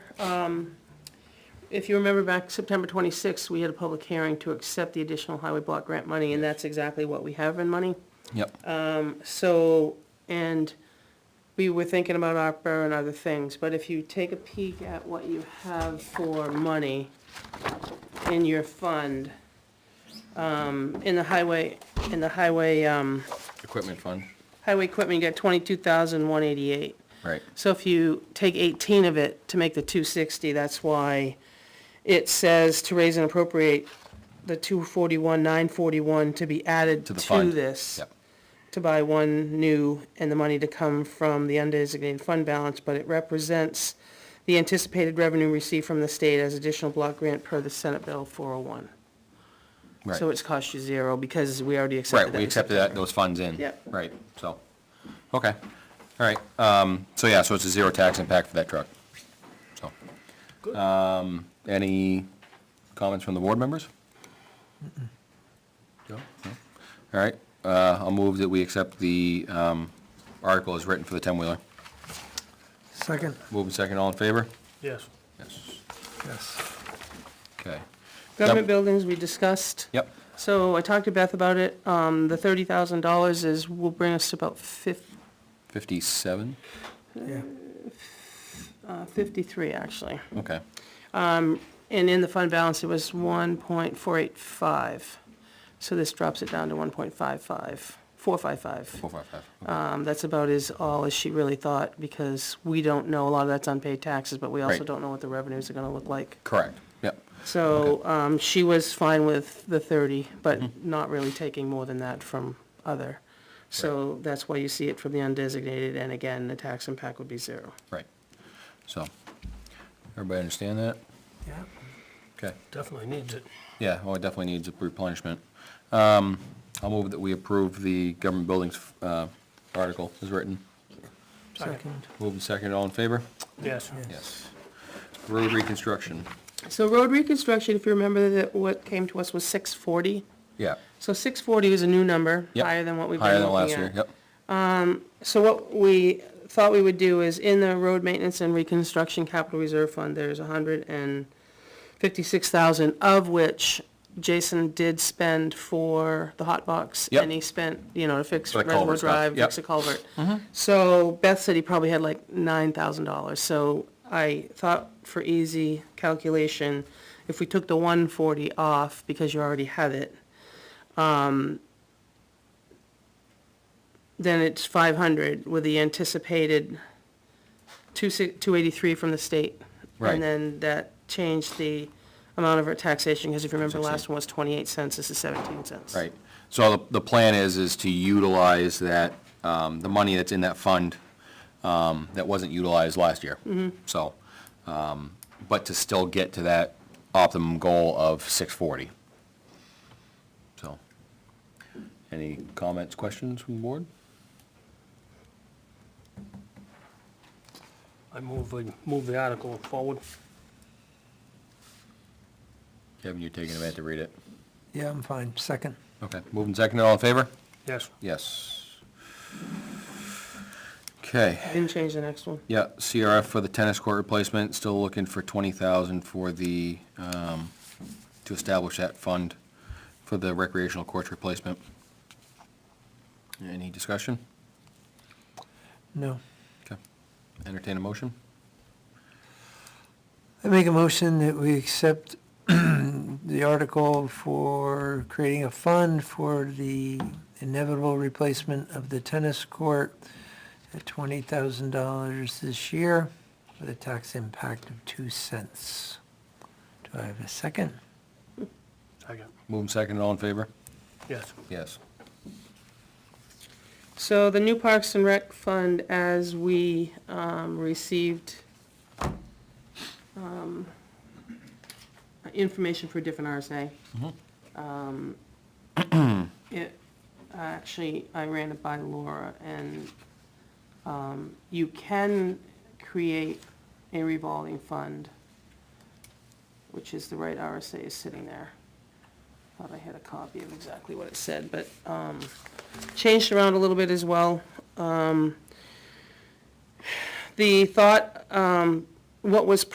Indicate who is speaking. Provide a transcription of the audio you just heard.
Speaker 1: um, if you remember back September 26th, we had a public hearing to accept the additional highway block grant money, and that's exactly what we have in money.
Speaker 2: Yep.
Speaker 1: So, and we were thinking about ARPA and other things, but if you take a peek at what you have for money in your fund, um, in the highway, in the highway, um,
Speaker 2: Equipment fund.
Speaker 1: highway equipment, you got twenty-two thousand, one eighty-eight.
Speaker 2: Right.
Speaker 1: So if you take 18 of it to make the 260, that's why it says to raise and appropriate the 241, 941 to be added to
Speaker 2: To the fund.
Speaker 1: this.
Speaker 2: Yep.
Speaker 1: To buy one new and the money to come from the undesignated fund balance, but it represents the anticipated revenue received from the state as additional block grant per the Senate Bill 401.
Speaker 2: Right.
Speaker 1: So it's cost you zero because we already accepted
Speaker 2: Right,
Speaker 1: that.
Speaker 2: we
Speaker 1: in
Speaker 2: accepted that, those funds in.
Speaker 1: Yep.
Speaker 2: Right, so, okay, all right, um, so yeah, so it's a zero tax impact for that truck, so. Um, any comments from the board members? Joe? No? All right, uh, I'll move that we accept the, um, article as written for the ten-wheeler.
Speaker 3: Second,
Speaker 2: Move and second, all in favor?
Speaker 4: Yes.
Speaker 2: Yes.
Speaker 3: yes.
Speaker 2: Okay,
Speaker 1: Government buildings, we discussed.
Speaker 2: yep,
Speaker 1: So I talked to Beth about it. Um, the thirty thousand dollars is, will bring us to about fif-
Speaker 2: fifty-seven,
Speaker 3: Yeah.
Speaker 1: uh, fifty-three, actually.
Speaker 2: okay,
Speaker 1: And in the fund balance, it was one point four eight five. So this drops it down to one point five five, four five five.
Speaker 2: four, five, five, okay.
Speaker 1: Um, that's about as all as she really thought, because we don't know, a lot of that's unpaid taxes, but we also
Speaker 2: Right.
Speaker 1: don't know what the revenues are gonna look like.
Speaker 2: correct, yep,
Speaker 1: So, um, she was fine with the thirty, but not really taking more than that from other. So that's why you see it from the undesignated, and again, the tax impact would be zero.
Speaker 2: right, so, everybody understand that?
Speaker 3: Yeah.
Speaker 2: Okay.
Speaker 4: Definitely needs it.
Speaker 2: Yeah, well, it definitely needs a replenishment. Um, I'll move that we approve the government buildings uh, article as written.
Speaker 3: Second,
Speaker 2: Move and second, all in favor?
Speaker 4: Yes.
Speaker 2: Yes. Road reconstruction,
Speaker 1: So road reconstruction, if you remember that what came to us was six forty.
Speaker 2: yeah.
Speaker 1: So six forty is a new number,
Speaker 2: Yep.
Speaker 1: higher than what we've
Speaker 2: Higher
Speaker 1: been
Speaker 2: than last
Speaker 1: looking
Speaker 2: year,
Speaker 1: at.
Speaker 2: yep,
Speaker 1: So what we thought we would do is in the road maintenance and reconstruction capital reserve fund, there's a hundred and fifty-six thousand, of which Jason did spend for the hot box.
Speaker 2: Yep.
Speaker 1: And he spent, you know, to fix
Speaker 2: For the
Speaker 1: Reservoir
Speaker 2: culvert stuff,
Speaker 1: Drive,
Speaker 2: yep.
Speaker 1: fix a culvert. So Beth said he probably had like nine thousand dollars, so I thought for easy calculation, if we took the one forty off, because you already have it, then it's five hundred with the anticipated two si- two eighty-three from the state.
Speaker 2: Right.
Speaker 1: And then that changed the amount of our taxation, because if you remember, the last one was twenty-eight cents, this is seventeen cents.
Speaker 2: right. So the- the plan is, is to utilize that, um, the money that's in that fund um, that wasn't utilized last year. So, um, but to still get to that optimum goal of 640. So, any comments, questions from the board?
Speaker 4: I move, we move the article forward.
Speaker 2: Kevin, you're taking a minute to read it.
Speaker 3: yeah, I'm fine, second.
Speaker 2: Okay, moving second, all in favor?
Speaker 4: Yes.
Speaker 2: Yes. Okay,
Speaker 1: Didn't change the next one.
Speaker 2: yeah, CRF for the tennis court replacement, still looking for 20,000 for the, um, to establish that fund for the recreational courts replacement. Any discussion?
Speaker 3: No.
Speaker 2: Okay. Entertain a motion?
Speaker 3: I make a motion that we accept the article for creating a fund for the inevitable replacement of the tennis court at twenty thousand dollars this year with a tax impact of two cents. Do I have a second?
Speaker 4: Second.
Speaker 2: Moving second, all in favor?
Speaker 4: Yes.
Speaker 2: Yes.
Speaker 1: So the new Parks and Rec Fund, as we um, received um, information for a different RSA, um, it, uh, actually, I ran it by Laura, and um, you can create a revolving fund, which is the right RSA is sitting there. Thought I had a copy of exactly what it said, but um, changed around a little bit as well. Um, The thought, um, what was